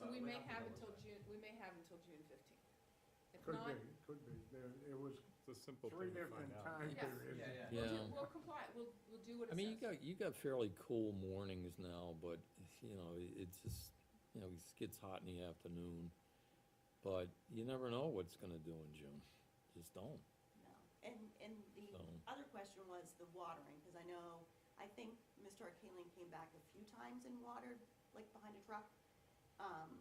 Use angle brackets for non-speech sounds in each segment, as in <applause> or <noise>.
we might may not be have done until with June, that. we may have until June fifteenth. If Could not, be, could be. There, it was It's a simple three thing to different find out. time Yes. periods. Yeah, yeah. we'll do, Yeah. we'll comply, we'll, we'll do what I it mean, you says. got, you got fairly cool mornings now, but, you know, it- it just, you know, it gets hot in the afternoon. But you never know what's gonna do in June, just don't, No, and, and the so, other question was the watering, because I know, I think Mr. Arkaling came back a few times and watered, like behind a truck. Um,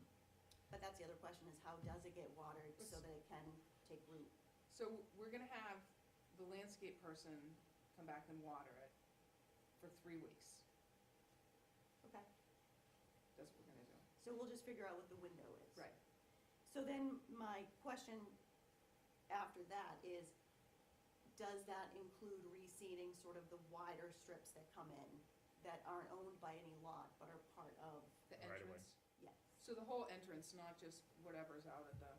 but that's the other question, is how does it get watered so that it can take root? So we're gonna have the landscape person come back and water it for three weeks. Okay, That's what we're gonna do. so we'll just figure out what the window is. Right. So then my question after that is, does that include reseeding sort of the wider strips that come in that aren't owned by any lot but are part of, The Right away. entrance, yes? so the whole entrance, not just whatever's out at the,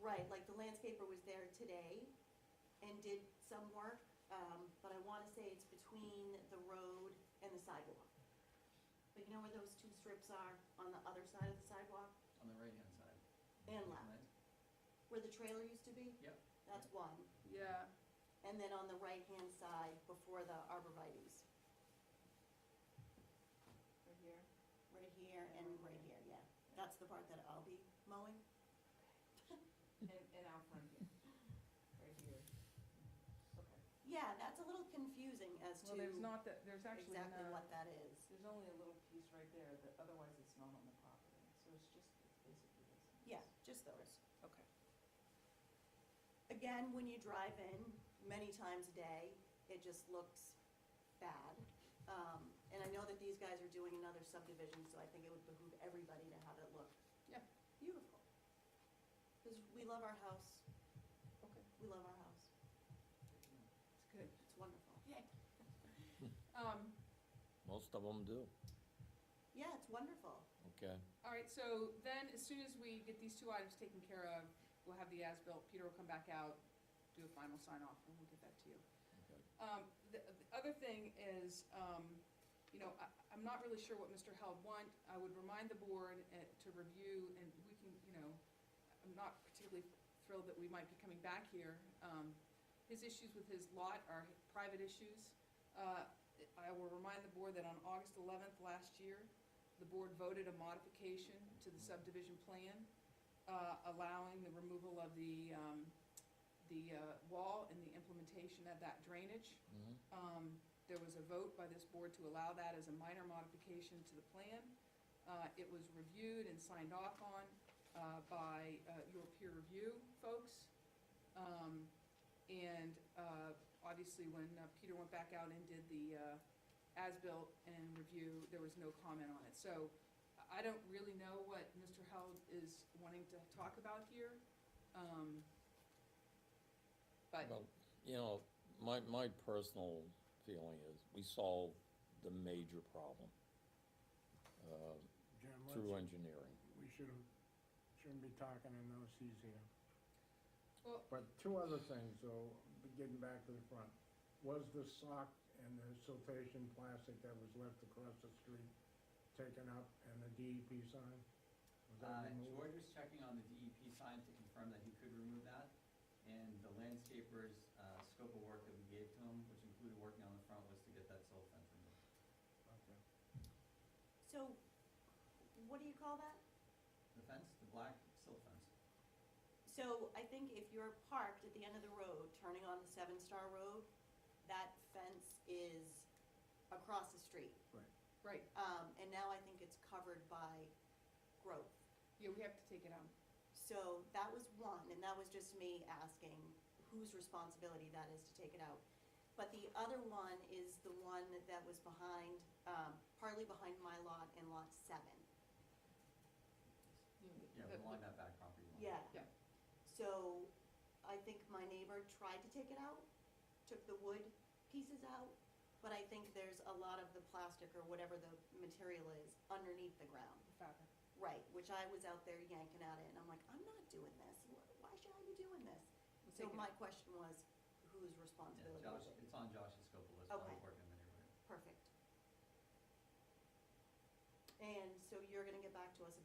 Right, like the landscaper was there today and did some work, um, but I wanna say it's between the road and the sidewalk. But you know where those two strips are on the other side of the sidewalk On the right-hand side. and On left, that- where the trailer used to be? Yep. That's one, yeah, and then on the right-hand side before the arborvitae's, right here. right here and right here, yeah. That's the part that I'll be mowing? And, and out front here, right here. Okay. Yeah, that's a little confusing as to Well, there's not that, there's actually not, exactly what there's that is. only a little piece right there, that otherwise it's not on the property, so it's just, it's basically this. and Yeah, this. just those. Okay. Again, when you drive in many times a day, it just looks bad. Um, and I know that these guys are doing another subdivision, so I think it would behoove everybody to have it look. Yeah. Beautiful. Cause we love our house, Okay, we love our house, it's good. it's wonderful. <laughs> Um, most of them do, Yeah, it's wonderful. okay? all right, so then as soon as we get these two items taken care of, we'll have the as-built, Peter will come back out, do a final sign-off, and we'll get that to you. Okay. Um, the, the other thing is, um, you know, I, I'm not really sure what Mr. Held want. I would remind the board uh, to review, and we can, you know, I'm not particularly thrilled that we might be coming back here. Um, his issues with his lot are private issues. Uh, I will remind the board that on August eleventh last year, the board voted a modification to the subdivision plan, uh, allowing the removal of the, um, the, uh, wall and the implementation of that drainage. Mhm. Um, there was a vote by this board to allow that as a minor modification to the plan. Uh, it was reviewed and signed off on, uh, by, uh, your peer review folks. Um, and, uh, obviously, when uh, Peter went back out and did the, uh, as-built and review, there was no comment on it. So I- I don't really know what Mr. Held is wanting to talk about here. Um, but, Well, you know, my, my personal feeling is, we solved the major problem, uh, Jim, through let's, engineering. we shouldn't, shouldn't be talking in those seas here. well, But two other things, though, but getting back to the front. Was the sock and the siltation plastic that was left across the street taken up and the DEP sign? Was Uh, that removed? George was checking on the DEP sign to confirm that he could remove that, and the landscaper's, uh, scope of work that we gave to him, which included working on the front, was to get that silt fence removed. Okay. So, what do you call that? The fence, the black silt fence. So I think if you're parked at the end of the road, turning on the Seven Star Road, that fence is across the street. right, Um, and now I think it's covered by growth. yeah, we have to take it out. So that was one, and that was just me asking whose responsibility that is to take it out. But the other one is the one that was behind, um, partly behind my lot and lot seven. You know, the- Yeah, the- along that back property line. Yeah. Yeah. So I think my neighbor tried to take it out, took the wood pieces out, but I think there's a lot of the plastic or whatever the material is underneath the ground. the fabric. Right, which I was out there yanking at it and I'm like, I'm not doing this. Wh- Why should I be doing this? We'll So take it my out. question was, whose Yeah, responsibility Josh, was it? it's on Josh's scope of work, so Okay. I'm working in the neighborhood. Perfect. And so you're gonna get back to us